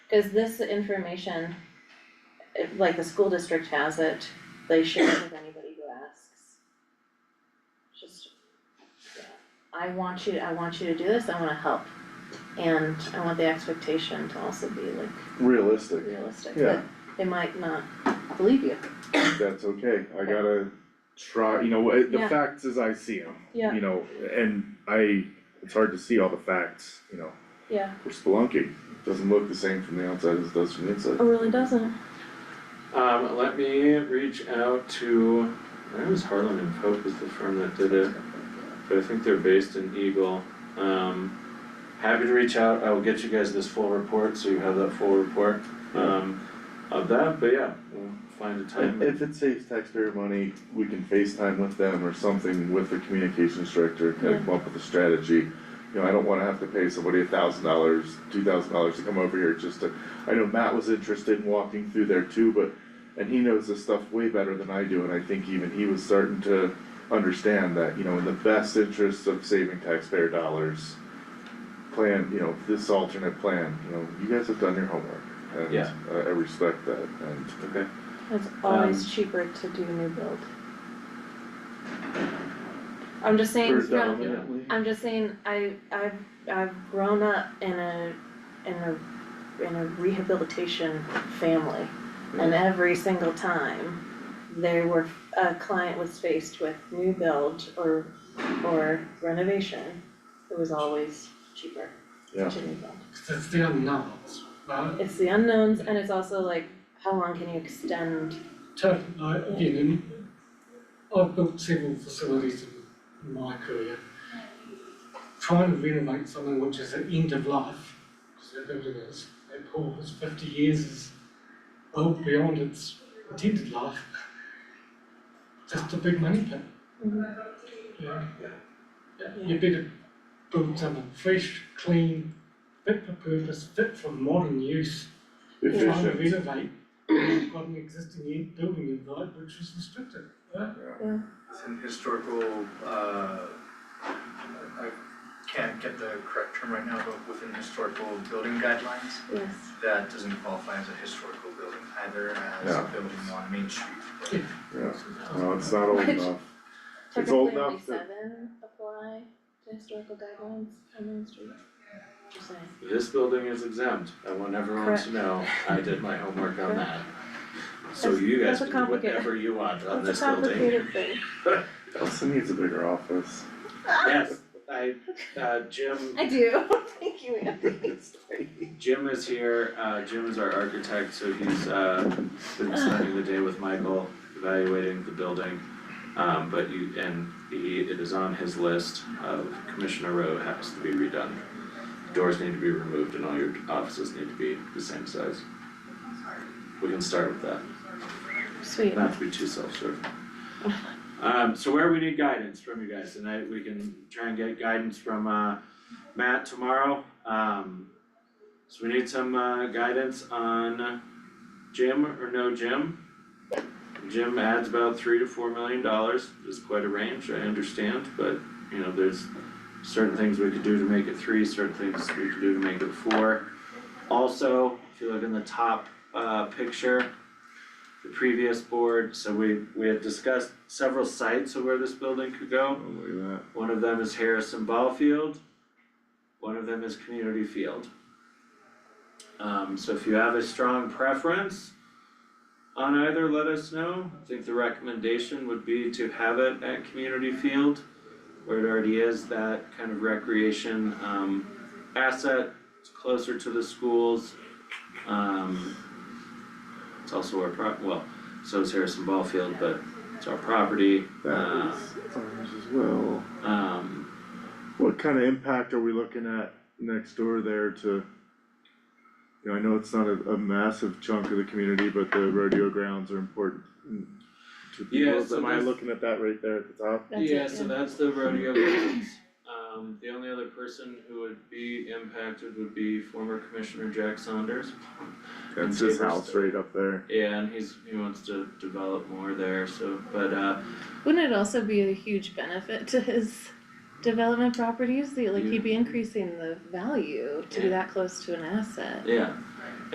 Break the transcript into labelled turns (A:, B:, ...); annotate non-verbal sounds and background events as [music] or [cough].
A: Is this information, if, like the school district has it, they share it with anybody who asks? Just, yeah, I want you, I want you to do this, I wanna help. And I want the expectation to also be like
B: realistic,
A: realistic,
B: Yeah.
A: that they might not believe you.
B: that's okay, I gotta try, you know, eh, the
A: Yeah.
B: facts as I see them,
A: Yeah,
B: you know, and I, it's hard to see all the facts, you know,
A: yeah.
B: we're spelunking, it doesn't look the same from the outside as it does from the inside.
A: It Oh, really doesn't.
C: Um, let me reach out to, I think it was Harlan and Pope is the firm that did it, but I think they're based in Eagle. Um, happy to reach out, I will get you guys this full report, so you have that full report, um, of that, but yeah, we'll find a time.
B: If if it saves taxpayer money, we can FaceTime with them or something with the communications director, kind of come up with a strategy. You know, I don't wanna have to pay somebody a thousand dollars, two thousand dollars to come over here just to, I know Matt was interested in walking through there too, but. And he knows this stuff way better than I do, and I think even he was starting to understand that, you know, in the best interest of saving taxpayer dollars. Plan, you know, this alternate plan, you know, you guys have done your homework, and uh,
C: Yeah.
B: I I respect that, and
C: Okay,
A: It's always cheaper to do new build. I'm just saying, it's not-
B: predominantly.
A: I'm just saying, I, I've, I've grown up in a, in a, in a rehabilitation family.
B: Mm-hmm.
A: And every single time, they were, a client was faced with new build or, or renovation, it was always cheaper
B: Yeah.
A: to new build.
D: Cause it's the unknowns, right?
A: It's the unknowns and it's also like, how long can you extend,
D: Totally, like, again, in- I've built several facilities in my career. Trying to renovate something which is at end of life, because that building is, that pool is fifty years, is well beyond its intended life. Just a big money pit. Yeah. Yeah, You better build something fresh, clean, fit for purpose, fit for modern use trying to
B: Efficient,
D: renovate, you've got an existing in- building in right, which is restricted, right?
E: It's an historical, uh, I I can't get the correct term right now, but within historical building guidelines,
A: yes,
E: that doesn't qualify as a historical building either as
B: Yeah.
E: a building on Main Street.
B: yeah, no, it's not old enough, It's old
A: technically only
B: enough that-
A: seven apply to historical guidelines on Main Street. Just saying.
C: this building is exempt, I want everyone
A: Correct.
C: to know, I did my homework on that. So
A: That's-
C: you guys
A: that's
C: can
A: a
C: do
A: complicated-
C: whatever you want on this
A: It's a
C: building,
A: complicated thing.
B: Elsa needs a bigger office.
A: [laughs]
C: yes, I, uh, Jim
A: I do, [laughs] thank you, Anne.
C: Jim is here, uh Jim is our architect, so he's uh been spending the day with Michael evaluating the building. Um but you, and he, it is on his list of Commissioner Road has to be redone. Doors need to be removed and all your offices need to be the same size. We can start with that,
A: Sweet.
C: not to be too self-serving. Um so where we need guidance from you guys tonight, we can try and get guidance from uh Matt tomorrow, um. So we need some uh guidance on Jim or no Jim. Jim adds about three to four million dollars, is quite a range, I understand, but you know, there's certain things we could do to make it three, certain things we could do to make it four. Also, if you look in the top uh picture, the previous board, so we we had discussed several sites of where this building could go.
B: Oh, look at
C: One of them is Harrison Ball Field. One of them is Community Field. Um, so if you have a strong preference on either, let us know. I think the recommendation would be to have it at Community Field, where it already is that kind of recreation, um, asset. It's closer to the schools. Um, it's also our pro, well, so is Harrison Ball Field, but it's our property. Ah.
B: That is ours as well.
C: Uh, um,
B: What kind of impact are we looking at next door there to? You know, I know it's not a, a massive chunk of the community, but the rodeo grounds are important to
C: Yeah,
B: people.
C: so
B: Am I
C: that's-
B: looking at that right there at the top?
A: That's it,
C: Yeah, so that's the rodeo grounds. Um, the only other person who would be impacted would be former Commissioner Jack Saunders.
B: That's
C: And
B: his
C: Davis-
B: house right up there.
C: Yeah, and he's, he wants to develop more there, so, but, uh,
A: Wouldn't it also be a huge benefit to his development properties, The- like he'd be increasing the value to be that close to an asset?
C: yeah,